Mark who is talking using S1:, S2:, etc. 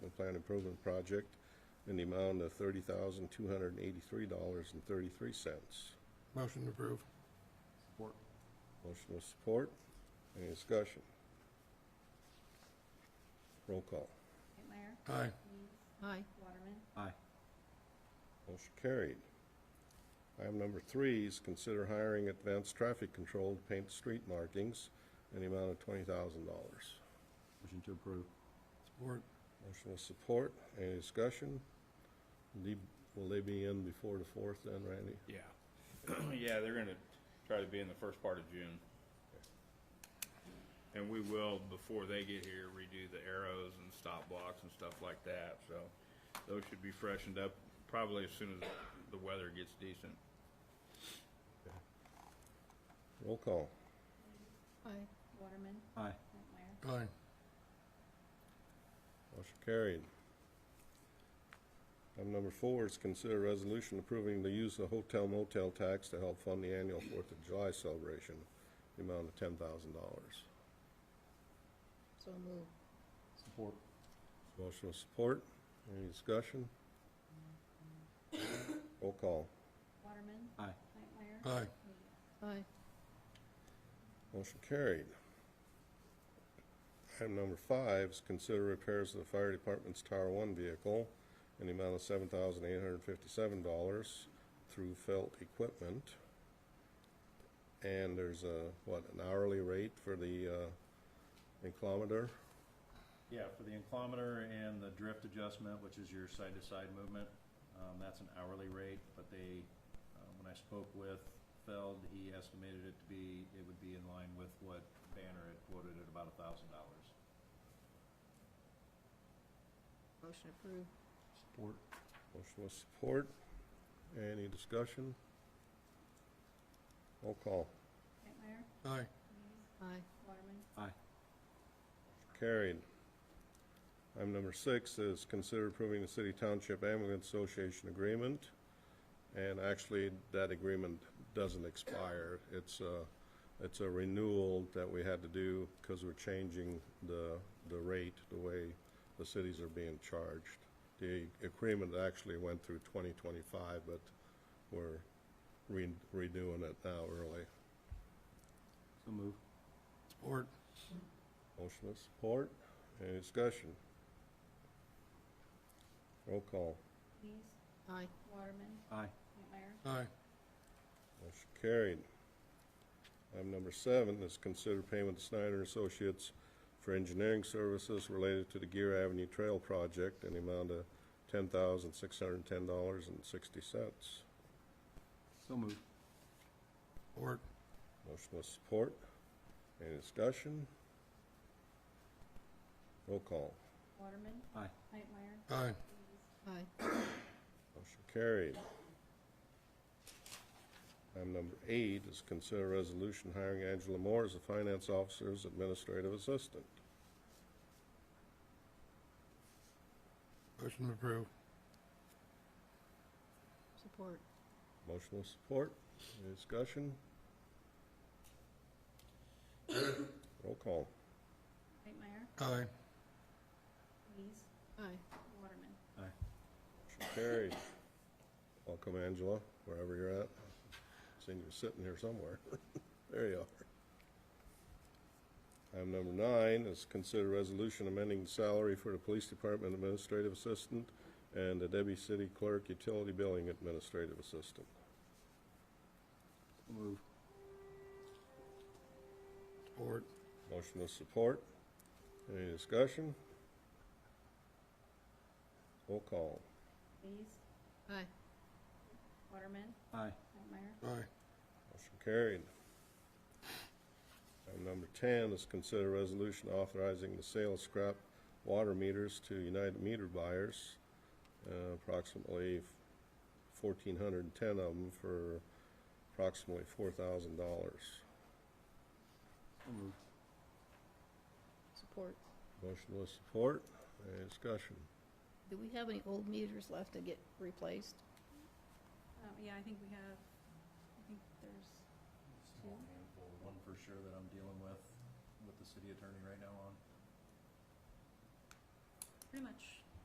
S1: Plant Improvement Project in the amount of thirty thousand, two hundred and eighty-three dollars and thirty-three cents.
S2: Motion to approve.
S3: Support.
S1: Motion with support. Any discussion? Roll call.
S4: Whitmire,
S2: Aye.
S4: Dees,
S5: Aye.
S4: Waterman,
S3: Aye.
S1: Motion carried. Item number three is consider hiring advanced traffic control to paint street markings in the amount of twenty thousand dollars.
S3: Motion to approve.
S2: Support.
S1: Motion with support. Any discussion? The- Will they be in before the fourth then, Randy?
S6: Yeah. Yeah, they're gonna try to be in the first part of June. And we will, before they get here, redo the arrows and stop blocks and stuff like that, so those should be freshened up probably as soon as the weather gets decent.
S1: Roll call.
S5: Aye.
S4: Waterman,
S3: Aye.
S4: Whitmire,
S2: Aye.
S1: Motion carried. Item number four is consider resolution approving the use of hotel motel tax to help fund the annual Fourth of July celebration, the amount of ten thousand dollars.
S5: So moved.
S3: Support.
S1: Motion with support. Any discussion? Roll call.
S4: Waterman,
S3: Aye.
S4: Whitmire.
S2: Aye.
S4: Dees.
S5: Aye.
S1: Motion carried. Item number five is consider repairs to the fire department's Tower One vehicle in the amount of seven thousand eight hundred and fifty-seven dollars through felt equipment. And there's a, what, an hourly rate for the, uh, inclometer?
S3: Yeah, for the inclometer and the drift adjustment, which is your side-to-side movement, um, that's an hourly rate, but they, uh, when I spoke with Feld, he estimated it to be, it would be in line with what Banner had quoted at about a thousand dollars.
S5: Motion approved.
S3: Support.
S1: Motion with support. Any discussion? Roll call.
S4: Whitmire,
S2: Aye.
S4: Dees,
S5: Aye.
S4: Waterman,
S3: Aye.
S1: Carried. Item number six is consider approving the City Township Ambulance Association agreement. And actually, that agreement doesn't expire. It's a, it's a renewal that we had to do because we're changing the, the rate, the way the cities are being charged. The agreement actually went through 2025, but we're re- redoing it now early.
S3: So move.
S2: Support.
S1: Motion with support. Any discussion? Roll call.
S4: Dees,
S5: Aye.
S4: Waterman,
S3: Aye.
S4: Whitmire,
S2: Aye.
S1: Motion carried. Item number seven is consider payment to Snyder Associates for engineering services related to the Gear Avenue Trail Project in the amount of ten thousand, six hundred and ten dollars and sixty cents.
S3: So move.
S2: Support.
S1: Motion with support. Any discussion? Roll call.
S4: Waterman,
S3: Aye.
S4: Whitmire,
S2: Aye.
S4: Dees,
S5: Aye.
S1: Motion carried. Item number eight is consider resolution hiring Angela Moore as a finance officer's administrative assistant.
S2: Motion to approve.
S5: Support.
S1: Motion with support. Any discussion? Roll call.
S4: Whitmire,
S2: Aye.
S4: Dees,
S5: Aye.
S4: Waterman,
S3: Aye.
S1: Motion carried. Welcome, Angela, wherever you're at. Seen you sitting here somewhere. There you are. Item number nine is consider resolution amending the salary for the Police Department Administrative Assistant and the Debbie City Clerk Utility Billing Administrative Assistant.
S3: So move.
S2: Support.
S1: Motion with support. Any discussion? Roll call.
S4: Dees,
S5: Aye.
S4: Waterman,
S3: Aye.
S4: Whitmire,
S2: Aye.
S1: Motion carried. Item number ten is consider resolution authorizing the sale of scrap water meters to United Meter buyers, uh, approximately fourteen hundred and ten of them for approximately four thousand dollars.
S3: So move.
S5: Support.
S1: Motion with support. Any discussion?
S5: Do we have any old meters left to get replaced?
S4: um, yeah, I think we have, I think there's
S3: Small handful, one for sure that I'm dealing with, with the city attorney right now on.
S4: pretty much